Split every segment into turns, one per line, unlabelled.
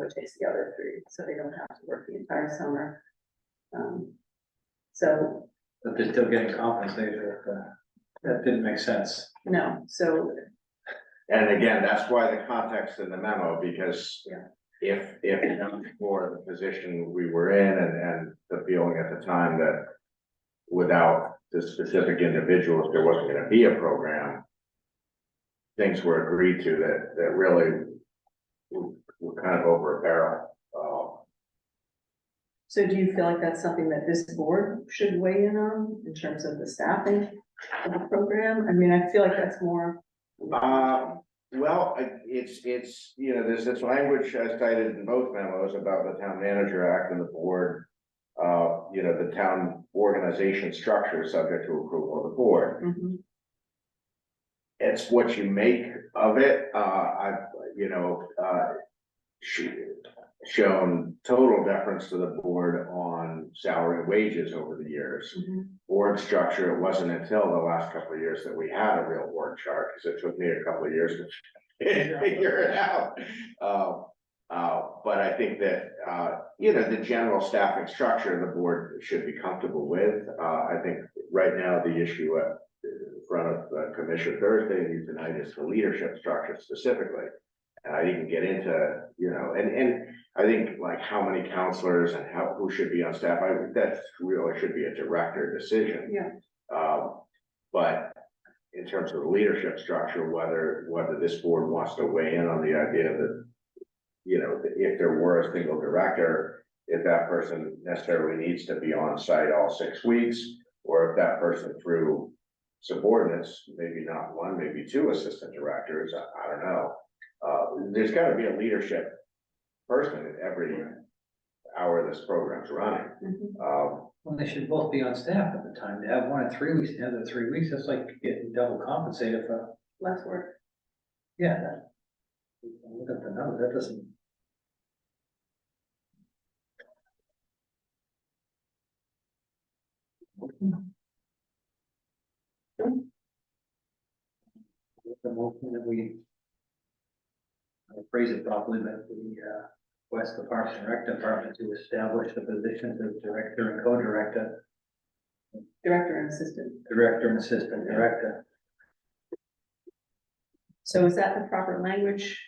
which is the other three, so they don't have to work the entire summer. Um, so
But they're still getting compensated, uh, that didn't make sense.
No, so,
And again, that's why the context in the memo, because
Yeah.
if, if not for the position we were in and, and the feeling at the time that without the specific individuals, there wasn't gonna be a program, things were agreed to that, that really were, were kind of over a barrel. Uh,
so do you feel like that's something that this board should weigh in on in terms of the staffing of the program? I mean, I feel like that's more.
Uh, Well, I- it's, it's, you know, there's this language I cited in both memos about the town manager act and the board. Uh, you know, the town organization structure is subject to approval of the board.
Mhm,
It's what you make of it. Uh, I've, you know, uh, sh- shown total deference to the board on salary and wages over the years
mhm.
board structure, it wasn't until the last couple of years that we had a real org chart, because it took me a couple of years to figure it out. Uh, uh, but I think that, uh, you know, the general staffing structure the board should be comfortable with. Uh, I think right now the issue at, in front of uh, Commissioner Thursday tonight is the leadership structure specifically. And I didn't get into, you know, and, and I think like how many counselors and how, who should be on staff, I, that really should be a director decision.
Yeah.
Um, but in terms of the leadership structure, whether, whether this board wants to weigh in on the idea that, you know, that if there were a single director, if that person necessarily needs to be on site all six weeks, or if that person through subordinates, maybe not one, maybe two assistant directors, I, I don't know. Uh, there's gotta be a leadership person at every hour this program's running.
mhm.
Um,
Well, they should both be on staff at the time, to have one in three weeks, the other three weeks, that's like getting double compensated for,
Less work.
yeah. that- Look at the number, that doesn't. The motion that we. I'll Phrase it properly, that we, uh, request the Parks and Rec Department to establish the positions of director and co-director
Director and assistant.
Director and assistant director.
So is that the proper language?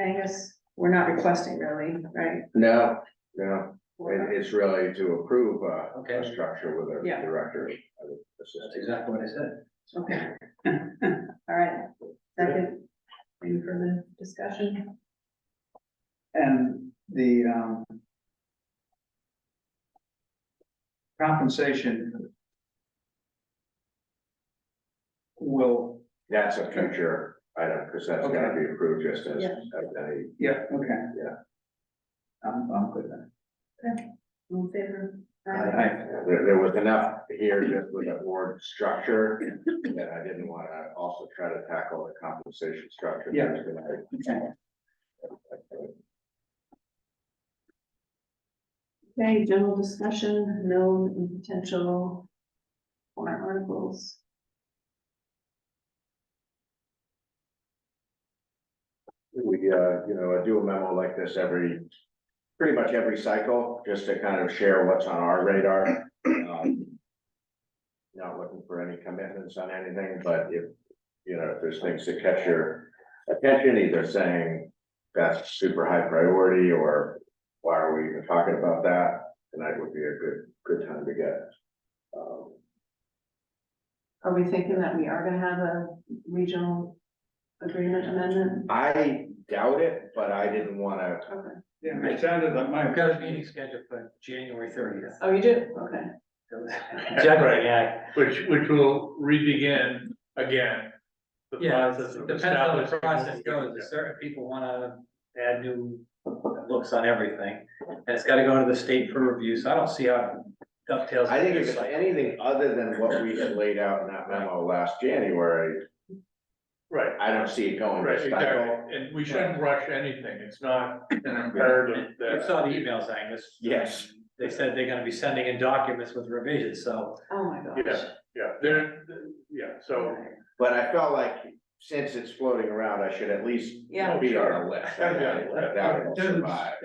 Angus, we're not requesting really, right?
no, no,
We're
it,
not-
it's really to approve uh,
Okay.
a structure with a
Yeah.
director. uh,
That's
assistant.
exactly what I said.
Okay. All right, second, any further discussion?
And the, um. Compensation. Will,
That's a future item, because that's gonna be approved just as,
Yeah.
as any,
yeah, okay.
Yeah.
I'm, I'm good then.
All in favor?
I,
there, there was enough here just with the board structure that I didn't wanna also try to tackle the compensation structure.
Yeah.
There's gonna be-
okay,
Okay, general discussion, known and potential warrant articles.
We, uh, you know, I do a memo like this every, pretty much every cycle, just to kind of share what's on our radar. Um, Not looking for any commitments on anything, but if, you know, if there's things that catch your attention, either saying that's super high priority, or why are we even talking about that? Tonight would be a good, good time to get. um,
Are we thinking that we are gonna have a regional agreement amendment?
I doubt it, but I didn't wanna,
Okay.
yeah, it sounded like my.
I've got a meeting scheduled for January thirtieth.
Oh, you do? Okay.
January, yeah.
Which, which will re-begin again. the
Yeah,
process of
depends how the
establishing-
process goes. There's Certain people wanna add new looks on everything. And it's gotta go to the state for review, so I don't see how it dovetails.
I think if
with
it's
this cycle.
anything other than what we had laid out in that memo last January,
Right,
I don't see it going
right,
this cycle.
exactly, and we shouldn't rush anything, it's not an imperative
You
that.
saw the emails, Angus.
Yes.
They said they're gonna be sending in documents with revisions, so
Oh, my gosh.
Yeah, yeah, there, yeah, so,
But I felt like since it's floating around, I should at least
Yeah.
be on a list.
Yeah.
That will survive.